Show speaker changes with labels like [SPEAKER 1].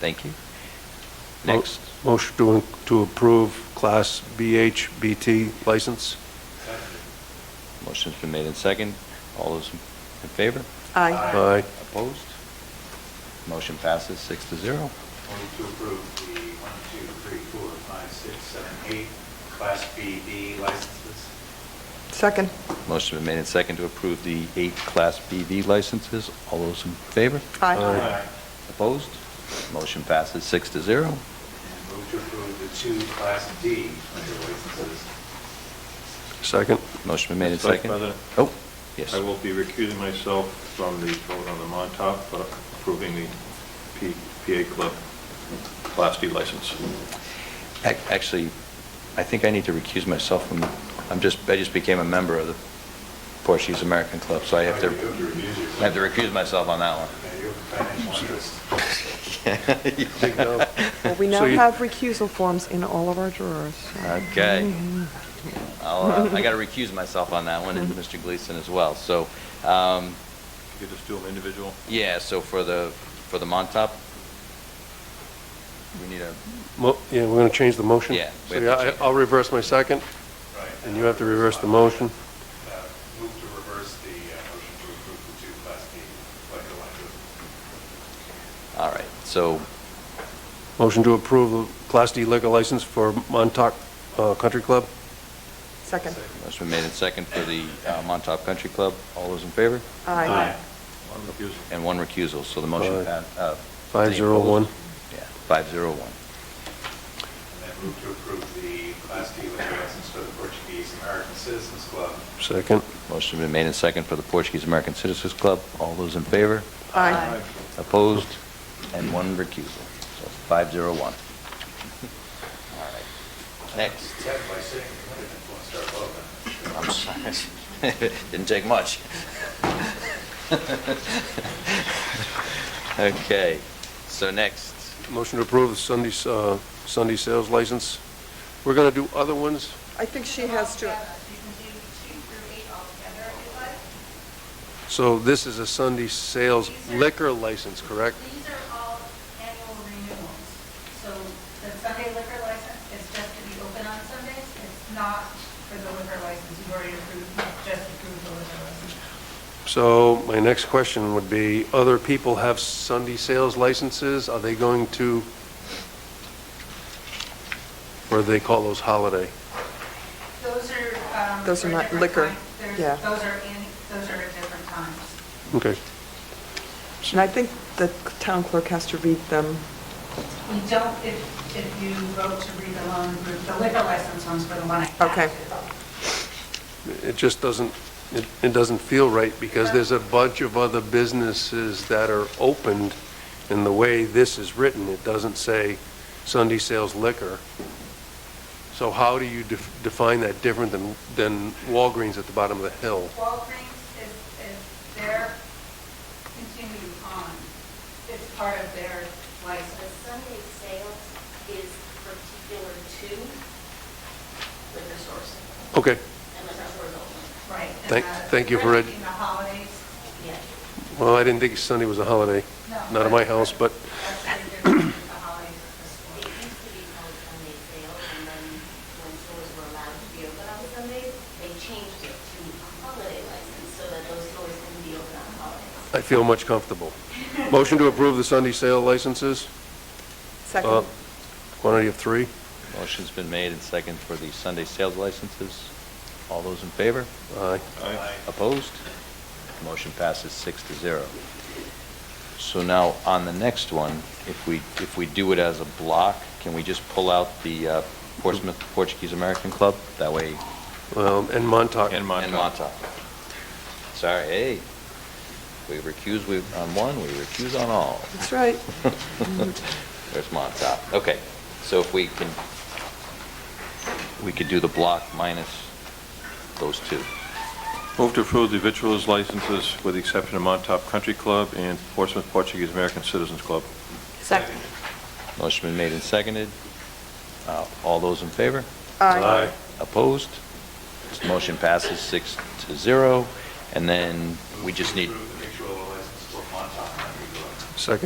[SPEAKER 1] Thank you.
[SPEAKER 2] Mo-
[SPEAKER 1] Next,
[SPEAKER 2] Motion to, to approve Class BHBT license?
[SPEAKER 1] motion's been made in second. All those in favor?
[SPEAKER 3] Aye.
[SPEAKER 2] Aye.
[SPEAKER 1] Opposed? Motion passes six to zero.
[SPEAKER 4] Move to approve the one, two, three, four, five, six, seven, eight Class BD licenses.
[SPEAKER 3] Second.
[SPEAKER 1] Motion been made in second to approve the eight Class BV licenses. All those in favor?
[SPEAKER 2] Aye.
[SPEAKER 1] Opposed? Motion passes six to zero.
[SPEAKER 4] And move to approve the two Class D liquor licenses.
[SPEAKER 2] Second?
[SPEAKER 1] Motion been made in
[SPEAKER 5] Mr. Vice
[SPEAKER 1] second.
[SPEAKER 5] President?
[SPEAKER 1] Oh, yes.
[SPEAKER 5] I will be recusing myself from the vote on the Montauk for approving the P- PA Club Class D license.
[SPEAKER 1] Ac- Actually, I think I need to recuse myself from, I'm just, I just became a member of the Portuguese American Club, so I have to,
[SPEAKER 4] You have to recuse yourself.
[SPEAKER 1] I have to recuse myself on that one.
[SPEAKER 4] Yeah, you have a financial interest.
[SPEAKER 2] Big no.
[SPEAKER 3] Well, we now
[SPEAKER 2] So you-
[SPEAKER 3] have recusal forms in all of our drawers.
[SPEAKER 1] Okay. I'll, uh, I got to recuse myself on that one, and
[SPEAKER 2] Mm-hmm.
[SPEAKER 1] Mr. Gleason as well. So, um,
[SPEAKER 5] You could just do them individual.
[SPEAKER 1] yeah, so for the, for the Montauk, we need a,
[SPEAKER 2] Mo- Yeah, we're going to change the motion?
[SPEAKER 1] Yeah,
[SPEAKER 2] So
[SPEAKER 1] we have to
[SPEAKER 2] yeah,
[SPEAKER 1] change.
[SPEAKER 2] I- I'll reverse my second,
[SPEAKER 4] Right.
[SPEAKER 2] and you have to reverse the motion.
[SPEAKER 4] Uh, Move to reverse the uh, motion to approve the two Class D liquor licenses.
[SPEAKER 1] all right, so,
[SPEAKER 2] Motion to approve the Class D liquor license for Montauk uh, Country Club?
[SPEAKER 3] Second.
[SPEAKER 1] motion been made in second for the uh, Montauk Country Club. All those in favor?
[SPEAKER 3] Aye.
[SPEAKER 5] One recusal.
[SPEAKER 1] And one recusal, so the motion
[SPEAKER 2] Aye.
[SPEAKER 1] passed. uh,
[SPEAKER 2] Five zero one.
[SPEAKER 1] Yeah, five zero one.
[SPEAKER 4] And then move to approve the Class D liquor license for the Portuguese American Citizens Club.
[SPEAKER 2] Second?
[SPEAKER 1] Motion been made in second for the Portuguese American Citizens Club. All those in favor?
[SPEAKER 3] Aye.
[SPEAKER 1] Opposed? And one recusal. So five zero one. All right. Next.
[SPEAKER 4] Ted, by sitting, I didn't want to start voting.
[SPEAKER 1] I'm sorry. Didn't take much. Okay, so next,
[SPEAKER 2] Motion to approve the Sunday, s- uh, Sunday sales license. We're going to do other ones?
[SPEAKER 3] I think she has to,
[SPEAKER 6] You can do two through eight altogether if you'd like.
[SPEAKER 2] So this is a Sunday sales liquor license, correct?
[SPEAKER 6] These are all annual renewals. So the Sunday liquor license is just to be open on Sundays. It's not for the liquor license. You've already approved, just approved the liquor license.
[SPEAKER 2] So my next question would be, other people have Sunday sales licenses, are they going to, or do they call those holiday?
[SPEAKER 6] Those are, um.
[SPEAKER 3] Those are
[SPEAKER 6] for a
[SPEAKER 3] not
[SPEAKER 6] different
[SPEAKER 3] liquor.
[SPEAKER 6] time. They're-
[SPEAKER 3] Yeah.
[SPEAKER 6] Those are in, those are at different times.
[SPEAKER 2] Okay,
[SPEAKER 3] and I think the town clerk has to read them.
[SPEAKER 6] We don't, if, if you vote to read the loan group, the liquor license one's for the one I have.
[SPEAKER 3] Okay.
[SPEAKER 2] it just doesn't, it, it doesn't feel right, because there's a bunch of other businesses that are opened, and the way this is written, it doesn't say Sunday sales liquor. So how do you def- define that different than, than Walgreens at the bottom of the hill?
[SPEAKER 6] Walgreens is, is their continued on, it's part of their
[SPEAKER 7] The
[SPEAKER 6] license.
[SPEAKER 7] Sunday sales is particular to liquor stores
[SPEAKER 2] Okay,
[SPEAKER 7] and liquor stores only.
[SPEAKER 6] Right. and
[SPEAKER 2] Thank-
[SPEAKER 6] the-
[SPEAKER 2] thank you for it.
[SPEAKER 6] In the holidays,
[SPEAKER 7] Yeah.
[SPEAKER 2] well, I didn't think Sunday was a holiday,
[SPEAKER 6] no.
[SPEAKER 2] not at my house, but
[SPEAKER 6] That's the difference with the holidays at this
[SPEAKER 7] It
[SPEAKER 6] point.
[SPEAKER 7] used to be called Sunday sales, and then when stores were allowed to be open on Sundays, they changed it to holiday license so that those stores can be open on holidays.
[SPEAKER 2] I feel much comfortable. Motion to approve the Sunday sale licenses, uh,
[SPEAKER 3] Second.
[SPEAKER 2] quantity of three.
[SPEAKER 1] motion's been made in second for the Sunday sales licenses. All those in favor?
[SPEAKER 2] Aye.
[SPEAKER 5] Aye.
[SPEAKER 1] Opposed? Motion passes six to zero. So now, on the next one, if we, if we do it as a block, can we just pull out the uh, Portsmouth Portuguese American Club? That way,
[SPEAKER 2] Well, and Montauk.
[SPEAKER 5] And
[SPEAKER 1] and Montauk. Sorry, hey, we recuse we- on one, we recuse on all.
[SPEAKER 3] That's right.
[SPEAKER 1] There's Montauk. Okay, so if we can, we could do the block minus those two.
[SPEAKER 5] Move to approve the vitriol's licenses with the exception of Montauk Country Club and Portsmouth Portuguese American Citizens Club.
[SPEAKER 7] Second.
[SPEAKER 1] Motion been made and seconded. Uh, All those in favor?
[SPEAKER 3] Aye.
[SPEAKER 1] Opposed? Motion passes six to zero, and then we just need,
[SPEAKER 4] Move to approve the victual license for Montauk Country Club.
[SPEAKER 2] Second.